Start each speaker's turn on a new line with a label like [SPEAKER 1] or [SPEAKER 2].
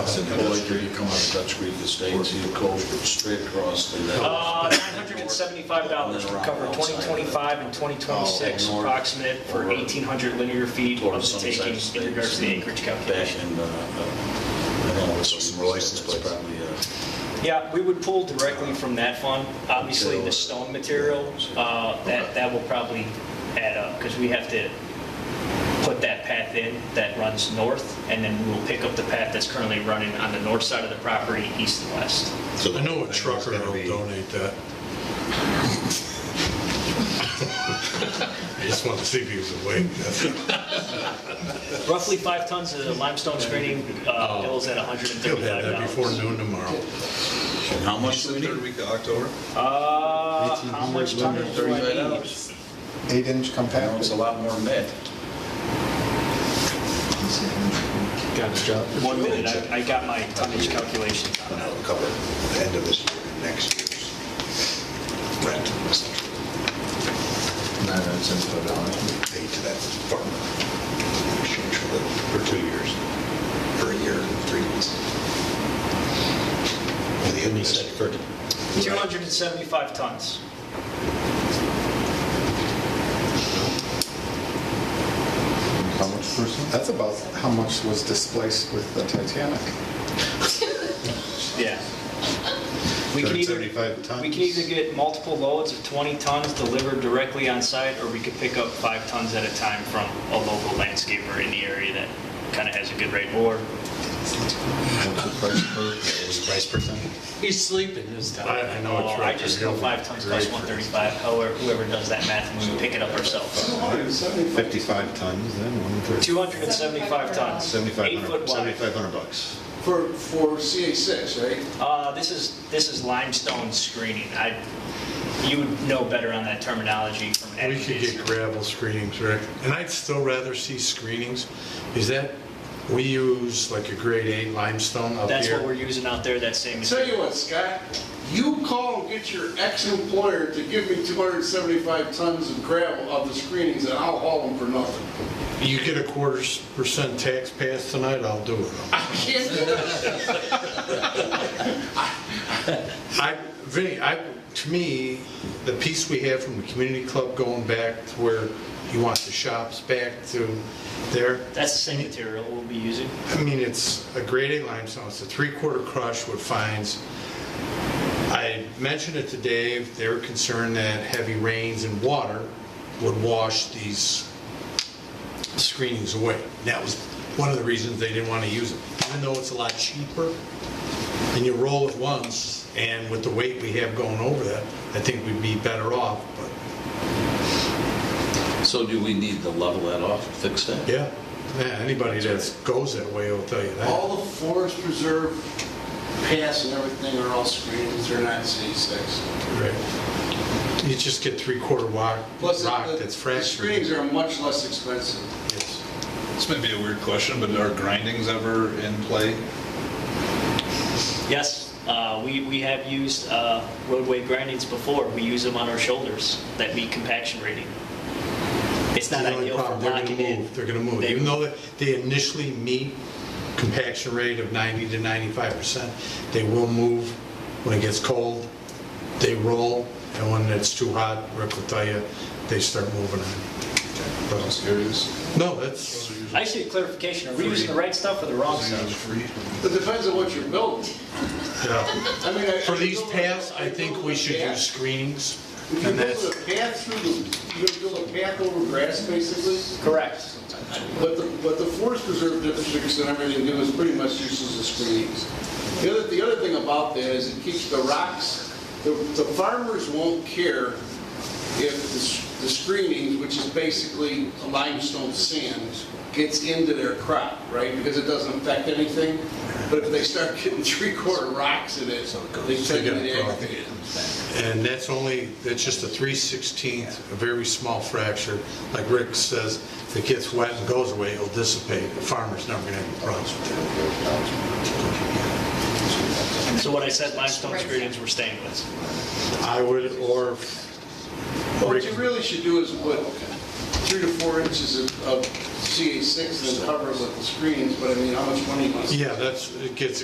[SPEAKER 1] Said Bollinger, you come out of Dutch Creek Estates, you go straight across and then
[SPEAKER 2] Uh, $975, which would cover 2025 and 2026,
[SPEAKER 1] Oh, north.
[SPEAKER 2] approximate for 1,800 linear feet of
[SPEAKER 1] towards
[SPEAKER 2] the
[SPEAKER 1] Sunset
[SPEAKER 2] taking
[SPEAKER 1] Estates.
[SPEAKER 2] in regards to the
[SPEAKER 1] and
[SPEAKER 2] acreage calculation.
[SPEAKER 1] Back in, uh, uh, I don't know, it's some license plates. Probably, uh,
[SPEAKER 2] Yeah, we would pull directly from that fund. Obviously, the stone material, uh, that, that will probably add up, because we have to put that path in that runs north, and then we will pick up the path that's currently running on the north side of the property, east and west.
[SPEAKER 3] I know a trucker will donate that. I just wanted to see if he was awake. That's it.
[SPEAKER 2] Roughly five tons of limestone screening, uh, bills at $135.
[SPEAKER 3] He'll have that before noon tomorrow.
[SPEAKER 1] and how much do we
[SPEAKER 4] Third
[SPEAKER 1] need?
[SPEAKER 4] week of October?
[SPEAKER 2] Uh, how much tonnage do I
[SPEAKER 1] Thirty-five
[SPEAKER 2] need?
[SPEAKER 1] dollars.
[SPEAKER 5] Eight-inch
[SPEAKER 1] You know, it's
[SPEAKER 5] compacted.
[SPEAKER 1] a lot more than that.
[SPEAKER 2] One minute, I, I got my tonnage calculations on that.
[SPEAKER 4] That'll cover the end of this year and next year's rent, essentially, paid to that farm in exchange for the, for two years, for a year, three months. And the end of this year.
[SPEAKER 2] 275 tons.
[SPEAKER 5] How much person? That's about how much was displaced with the Titanic.
[SPEAKER 2] Yeah. We can either,
[SPEAKER 5] 275 tons.
[SPEAKER 2] we can either get multiple loads of 20 tons delivered directly on site, or we could pick up five tons at a time from a local landscaper in the area that kind of has a good rate, or
[SPEAKER 6] He's sleeping this
[SPEAKER 3] I I know
[SPEAKER 2] or
[SPEAKER 3] a trucker.
[SPEAKER 2] Oh, I just know
[SPEAKER 3] he'll-
[SPEAKER 2] five tons plus 135, however, whoever does that math, and we would pick it up ourselves.
[SPEAKER 7] 55 tons, then 130.
[SPEAKER 2] 275 tons.
[SPEAKER 7] 7,500
[SPEAKER 2] Eight foot wide.
[SPEAKER 7] 7,500 bucks.
[SPEAKER 8] For, for CA6, right?
[SPEAKER 2] Uh, this is, this is limestone screening. I, you would know better on that terminology from
[SPEAKER 3] We could
[SPEAKER 2] aggregates.
[SPEAKER 3] get gravel screenings, Rick. And I'd still rather see screenings. Is that, we use like a grade eight limestone up
[SPEAKER 2] That's what we're
[SPEAKER 3] here.
[SPEAKER 2] using out there, that same
[SPEAKER 8] Tell
[SPEAKER 2] material.
[SPEAKER 8] you what, Scott, you call and get your ex-employer to give me 275 tons of gravel of the screenings, and I'll haul them for nothing.
[SPEAKER 3] You get a quarter s- percent tax pass tonight, I'll do it.
[SPEAKER 8] I can't do that.
[SPEAKER 3] I, Vinny, I, to me, the piece we have from the community club going back to where you want the shops back to there,
[SPEAKER 2] That's the same material we'll be using.
[SPEAKER 3] I mean, it's a grade eight limestone, it's a three-quarter crush with fines. I mentioned it to Dave, they were concerned that heavy rains and water would wash these screenings away. That was one of the reasons they didn't want to use it, even though it's a lot cheaper. And you roll it once, and with the weight we have going over that, I think we'd be better off, but,
[SPEAKER 1] So do we need to level that off, fix that?
[SPEAKER 3] yeah. Yeah, anybody that goes that way will tell you that.
[SPEAKER 8] All the forest preserve paths and everything are all screenings, they're not CA6.
[SPEAKER 3] Right. You just get three-quarter rock,
[SPEAKER 8] Plus,
[SPEAKER 3] rock
[SPEAKER 8] the-
[SPEAKER 3] that's
[SPEAKER 8] the screenings
[SPEAKER 3] fractured.
[SPEAKER 8] are much less expensive.
[SPEAKER 3] Yes.
[SPEAKER 4] This may be a weird question, but are grindings ever in play?
[SPEAKER 2] Yes, uh, we, we have used, uh, roadway grindings before. We use them on our shoulders, that meet compaction rating. It's not
[SPEAKER 3] The only
[SPEAKER 2] ideal for
[SPEAKER 3] problem, they're gonna
[SPEAKER 2] locking in.
[SPEAKER 3] move, They're gonna move,
[SPEAKER 2] They-
[SPEAKER 3] even though that they initially meet compaction rate of 90 to 95 percent, they will move when it gets cold, they roll, and when it's too hot, Rick will tell you, they start moving on.
[SPEAKER 4] I'm
[SPEAKER 3] But-
[SPEAKER 4] just curious.
[SPEAKER 3] No, that's,
[SPEAKER 2] I see a clarification. Are we using the right stuff or the wrong stuff?
[SPEAKER 8] It depends on what you're building.
[SPEAKER 3] yeah.
[SPEAKER 8] I mean, I-
[SPEAKER 3] For these
[SPEAKER 8] I build a-
[SPEAKER 3] paths, I think
[SPEAKER 8] build
[SPEAKER 3] we
[SPEAKER 8] a
[SPEAKER 3] should
[SPEAKER 8] path.
[SPEAKER 3] use screenings,
[SPEAKER 8] If you
[SPEAKER 3] and
[SPEAKER 8] build
[SPEAKER 3] that's,
[SPEAKER 8] a path through the, you build a path over grass, basically?
[SPEAKER 2] Correct.
[SPEAKER 8] But the, but the forest preserve districts and everything do is pretty much uses as screenings. The other, the other thing about that is it keeps the rocks, the, the farmers won't care if the, s- the screenings, which is basically limestone sand, gets into their crop, right? Because it doesn't affect anything. But if they start getting three-quarter rocks in it, they tend to
[SPEAKER 3] They
[SPEAKER 8] get
[SPEAKER 3] got a
[SPEAKER 8] aggravated.
[SPEAKER 3] and that's only, that's just a 3/16th, a very small fracture. Like Rick says, if it gets wet and goes away, it'll dissipate. The farmer's never gonna have problems with that.
[SPEAKER 2] So what I said, limestone screenings we're staying with.
[SPEAKER 3] I would, or,
[SPEAKER 8] What you really should do is put three to four inches of, of CA6 and then cover it with the screens, but I mean, how much money? must-
[SPEAKER 3] Yeah, that's, it gets